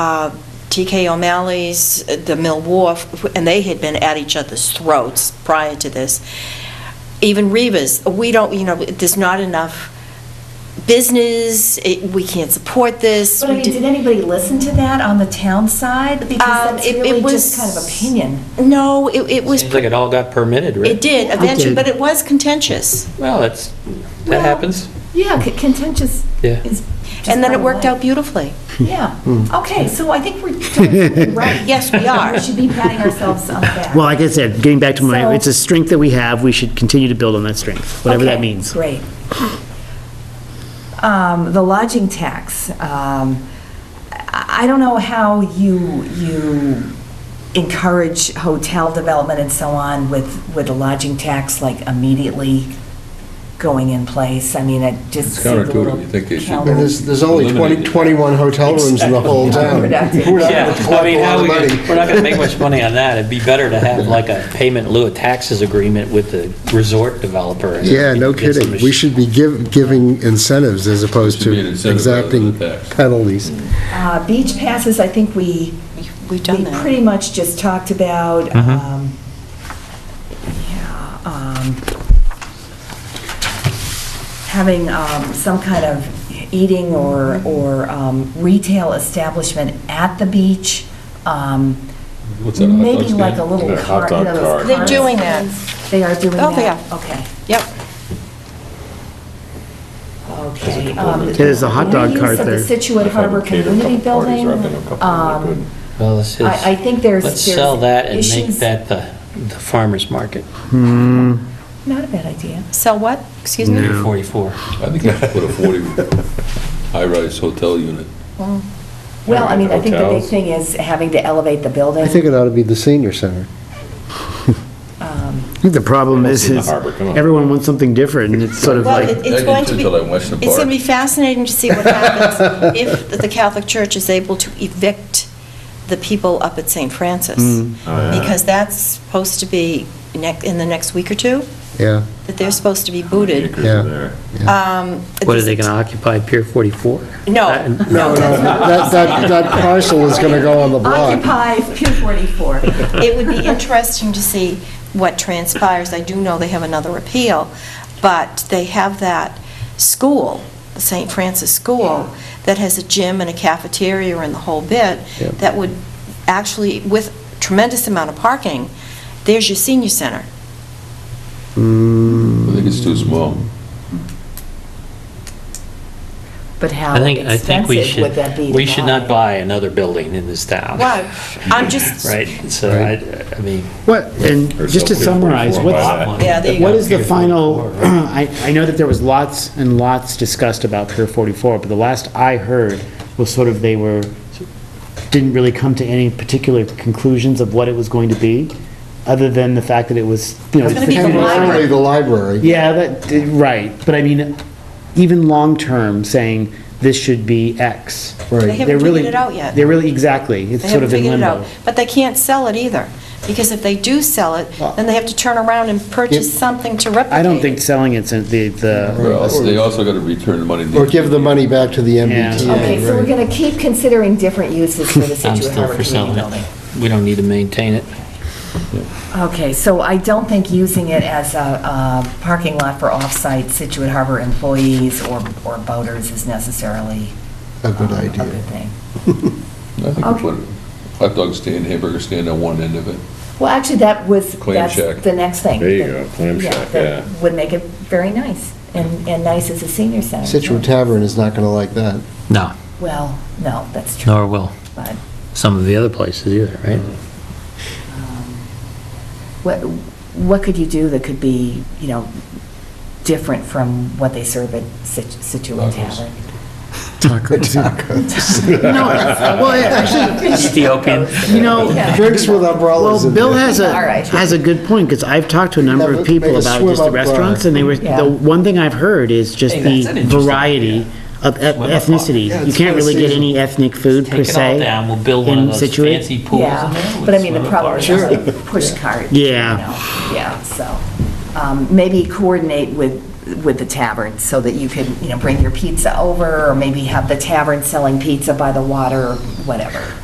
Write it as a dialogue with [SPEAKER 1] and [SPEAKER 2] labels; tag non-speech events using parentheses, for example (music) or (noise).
[SPEAKER 1] uh, TK O'Malley's, uh, the Mill Wharf, and they had been at each other's throats prior to this. Even Reva's, we don't, you know, there's not enough business, it- we can't support this.
[SPEAKER 2] But I
[SPEAKER 1] we
[SPEAKER 2] mean,
[SPEAKER 1] do-
[SPEAKER 2] did anybody listen to that on the town side? Because
[SPEAKER 1] Um,
[SPEAKER 2] that's
[SPEAKER 1] it- it
[SPEAKER 2] really
[SPEAKER 1] was-
[SPEAKER 2] just kind of opinion.
[SPEAKER 1] No, it it was,
[SPEAKER 3] Seems like it all got permitted, right?
[SPEAKER 1] it did eventually, but it was contentious.
[SPEAKER 3] Well, that's,
[SPEAKER 2] Well-
[SPEAKER 3] that happens.
[SPEAKER 2] Yeah, c- contentious
[SPEAKER 3] Yeah.
[SPEAKER 2] is.
[SPEAKER 1] And then it worked out beautifully.
[SPEAKER 2] Yeah.
[SPEAKER 4] Hmm.
[SPEAKER 2] Okay, so I think we're doing something
[SPEAKER 4] (laughs)
[SPEAKER 2] right.
[SPEAKER 1] Yes, we are.
[SPEAKER 2] We should be patting ourselves on the back.
[SPEAKER 4] Well, like I said, getting back to
[SPEAKER 2] So-
[SPEAKER 4] my, it's a strength that we have, we should continue to build on that strength, whatever that
[SPEAKER 2] Okay,
[SPEAKER 4] means.
[SPEAKER 2] Great. Um, The lodging tax, um, I I don't know how you, you encourage hotel development and so on with, with a lodging tax, like immediately going in place. I mean, it just
[SPEAKER 5] It's
[SPEAKER 2] seemed a little.
[SPEAKER 5] counterintuitive. You think they should-
[SPEAKER 2] counter-
[SPEAKER 6] And there's, there's only 20,
[SPEAKER 5] Eliminated.
[SPEAKER 6] 21 hotel rooms in the whole town.
[SPEAKER 2] Counterproductive.
[SPEAKER 6] We're not
[SPEAKER 3] Yeah,
[SPEAKER 6] gonna
[SPEAKER 3] I
[SPEAKER 6] collect
[SPEAKER 3] mean,
[SPEAKER 6] a lot
[SPEAKER 3] how
[SPEAKER 6] of
[SPEAKER 3] we,
[SPEAKER 6] money.
[SPEAKER 3] gonna- we're not going to make much money on that. It'd be better to have like a payment in lieu of taxes agreement with the resort developer. and
[SPEAKER 7] (laughs) Yeah, no
[SPEAKER 3] get some
[SPEAKER 7] kidding. We
[SPEAKER 3] sh-
[SPEAKER 7] should be give- giving incentives as opposed
[SPEAKER 5] Should be an
[SPEAKER 7] to
[SPEAKER 5] incentive rather than
[SPEAKER 7] exacting
[SPEAKER 5] a tax.
[SPEAKER 7] penalties.
[SPEAKER 2] Uh, Beach passes, I think we,
[SPEAKER 1] We've
[SPEAKER 2] we
[SPEAKER 1] done that.
[SPEAKER 2] pretty much just talked about.
[SPEAKER 5] Mm-hmm.
[SPEAKER 3] Mhm.
[SPEAKER 2] um, yeah, um, Having um, some kind of eating or, or um, retail establishment at the beach. um,
[SPEAKER 5] What's that, a hot dog
[SPEAKER 2] Maybe like a
[SPEAKER 5] stand?
[SPEAKER 2] little
[SPEAKER 5] Yeah, hot
[SPEAKER 2] cart, you
[SPEAKER 5] dog
[SPEAKER 2] know,
[SPEAKER 5] cart.
[SPEAKER 2] those
[SPEAKER 1] They're
[SPEAKER 2] carts.
[SPEAKER 1] doing that.
[SPEAKER 2] They are doing that?
[SPEAKER 1] Oh, they are.
[SPEAKER 2] Okay,
[SPEAKER 1] Yep.
[SPEAKER 2] okay. um,
[SPEAKER 4] It is a hot dog cart
[SPEAKER 2] Reuse of the
[SPEAKER 4] there.
[SPEAKER 2] Situate Harbor Community Building. um,
[SPEAKER 3] Well, let's,
[SPEAKER 2] I, I think there's.
[SPEAKER 3] let's
[SPEAKER 2] there's
[SPEAKER 3] sell that and make
[SPEAKER 2] issues-
[SPEAKER 3] that the, the farmer's market.
[SPEAKER 2] Not a bad idea.
[SPEAKER 1] Sell what? Excuse me?
[SPEAKER 4] No.
[SPEAKER 3] 44.
[SPEAKER 5] I think you should put a 40 (laughs) high-rise hotel unit.
[SPEAKER 2] Well, I mean, I think the big
[SPEAKER 5] Hotels.
[SPEAKER 2] thing is having to elevate the building.
[SPEAKER 7] I think it ought to be the senior center.
[SPEAKER 2] um,
[SPEAKER 4] I think the problem
[SPEAKER 5] Well,
[SPEAKER 4] is,
[SPEAKER 5] it's in the
[SPEAKER 4] is
[SPEAKER 5] harbor, come on.
[SPEAKER 4] everyone wants something different, and it's sort of
[SPEAKER 1] Well,
[SPEAKER 4] like,
[SPEAKER 1] it-
[SPEAKER 5] I
[SPEAKER 1] it's
[SPEAKER 5] did
[SPEAKER 1] going to
[SPEAKER 5] too
[SPEAKER 1] be,
[SPEAKER 5] till I went to
[SPEAKER 1] it's going to
[SPEAKER 5] Bart.
[SPEAKER 1] be fascinating to see what (laughs) happens if the Catholic Church is able to evict the people up at St. Francis. Because that's supposed to be nec- in the next week or two,
[SPEAKER 7] Yeah,
[SPEAKER 1] that they're supposed to be booted.
[SPEAKER 7] yeah.
[SPEAKER 1] Um,
[SPEAKER 3] What, are they going to occupy Pier 44?
[SPEAKER 1] No,
[SPEAKER 7] Oh, No, no, that, that, that parcel is going to go on the block.
[SPEAKER 2] Occupy Pier 44.
[SPEAKER 1] (laughs) it would be interesting to see what transpires. I do know they have another appeal, but they have that school, the St. Francis School, that has a gym and a cafeteria and the whole bit,
[SPEAKER 7] Yeah.
[SPEAKER 1] that would actually, with tremendous amount of parking, there's your senior center.
[SPEAKER 4] mm,
[SPEAKER 5] I think it's too small.
[SPEAKER 2] But how
[SPEAKER 3] I think, I think we
[SPEAKER 2] expensive would
[SPEAKER 3] should,
[SPEAKER 2] that be? to
[SPEAKER 3] we should not
[SPEAKER 2] buy?
[SPEAKER 3] buy another building in this town.
[SPEAKER 1] Well, (laughs) I'm just-
[SPEAKER 3] (laughs) Right, so I, I mean.
[SPEAKER 4] what, and just to summarize, what's,
[SPEAKER 1] Yeah, there you
[SPEAKER 4] what
[SPEAKER 1] go.
[SPEAKER 4] is the final, (clears throat) I, I know that there was lots and lots discussed about Pier 44, but the last I heard was sort of they were, didn't really come to any particular conclusions of what it was going to be, other than the fact that it was, you know.
[SPEAKER 1] It's gonna be the
[SPEAKER 4] potentially-
[SPEAKER 1] library.
[SPEAKER 7] Primarily the library.
[SPEAKER 4] Yeah, that, eh, right, but I mean, even long-term, saying this should be X.
[SPEAKER 7] Right.
[SPEAKER 1] They
[SPEAKER 4] They're
[SPEAKER 1] haven't
[SPEAKER 4] really-
[SPEAKER 1] figured it out yet.
[SPEAKER 4] They're really, exactly, it's
[SPEAKER 1] They
[SPEAKER 4] sort
[SPEAKER 1] haven't
[SPEAKER 4] of in
[SPEAKER 1] figured it out.
[SPEAKER 4] limbo.
[SPEAKER 1] But they can't sell it either, because if they do sell it, then they have to turn around and purchase
[SPEAKER 7] It-
[SPEAKER 1] something to replicate.
[SPEAKER 4] I don't think selling it's in the, the,
[SPEAKER 5] Well, They also got to return the money. to the-
[SPEAKER 7] Or give the money back to the
[SPEAKER 2] Okay, so we're
[SPEAKER 7] MBTA. right.
[SPEAKER 2] going to keep considering different uses for the
[SPEAKER 3] (laughs) I'm
[SPEAKER 2] Situate
[SPEAKER 3] still
[SPEAKER 2] Harbor
[SPEAKER 3] for
[SPEAKER 2] Community
[SPEAKER 3] selling
[SPEAKER 2] Building.
[SPEAKER 3] it. We don't need to maintain it.
[SPEAKER 2] Okay, so I don't think using it as a uh, parking lot for off-site Situate Harbor employees or, or boaters is necessarily.
[SPEAKER 7] A good
[SPEAKER 2] um,
[SPEAKER 7] idea.
[SPEAKER 2] A good thing.
[SPEAKER 5] I think we put a hot dog stand, hamburger stand on one end of it.
[SPEAKER 2] Well, actually, that was,
[SPEAKER 5] Clam
[SPEAKER 2] that's
[SPEAKER 5] shack.
[SPEAKER 2] the next thing.
[SPEAKER 8] There you go, clam
[SPEAKER 2] Yeah,
[SPEAKER 8] shack,
[SPEAKER 2] that
[SPEAKER 8] yeah.
[SPEAKER 2] Would make it very nice, and, and nice as a senior center.
[SPEAKER 7] Situate Tavern is not going to
[SPEAKER 1] (laughs)
[SPEAKER 7] like that.
[SPEAKER 3] No,
[SPEAKER 2] Well, no, that's true.
[SPEAKER 3] nor will
[SPEAKER 2] But
[SPEAKER 3] some of the other places either, right?
[SPEAKER 2] um, what, what could you do that could be, you know, different from what they serve at Sit- Situate
[SPEAKER 5] Tacos.
[SPEAKER 4] (laughs)
[SPEAKER 2] Tavern?
[SPEAKER 4] well, actually,
[SPEAKER 3] Ethiopian.
[SPEAKER 4] you know,
[SPEAKER 7] Drinks with umbrellas
[SPEAKER 4] well,
[SPEAKER 7] in
[SPEAKER 4] Bill
[SPEAKER 7] there.
[SPEAKER 4] has a,
[SPEAKER 2] All right.
[SPEAKER 4] has a good point, because I've talked to a number
[SPEAKER 7] Never
[SPEAKER 4] of people
[SPEAKER 7] make a
[SPEAKER 4] about just the
[SPEAKER 7] swim-up bar.
[SPEAKER 4] restaurants, and they were,
[SPEAKER 2] Yeah.
[SPEAKER 4] the one thing I've heard is just
[SPEAKER 3] Hey,
[SPEAKER 4] the
[SPEAKER 3] that's an interesting
[SPEAKER 4] variety of eth-
[SPEAKER 3] Swim-up bar.
[SPEAKER 4] ethnicity.
[SPEAKER 7] Yeah,
[SPEAKER 4] You
[SPEAKER 7] it's
[SPEAKER 4] can't
[SPEAKER 7] for
[SPEAKER 4] really get
[SPEAKER 7] season.
[SPEAKER 4] any ethnic food per
[SPEAKER 3] Take it all
[SPEAKER 4] se.
[SPEAKER 3] down, we'll build one of
[SPEAKER 4] in
[SPEAKER 3] those
[SPEAKER 4] Situate.
[SPEAKER 3] fancy pools in there.
[SPEAKER 2] Yeah,
[SPEAKER 3] with
[SPEAKER 2] but I mean, the
[SPEAKER 3] swim-up
[SPEAKER 2] problem
[SPEAKER 3] bars.
[SPEAKER 2] is like push cart. you
[SPEAKER 4] Yeah.
[SPEAKER 2] know, Yeah, so, um, maybe coordinate with with the tavern, so that you could, you know, bring your pizza over, or maybe have the tavern selling pizza by the water, whatever.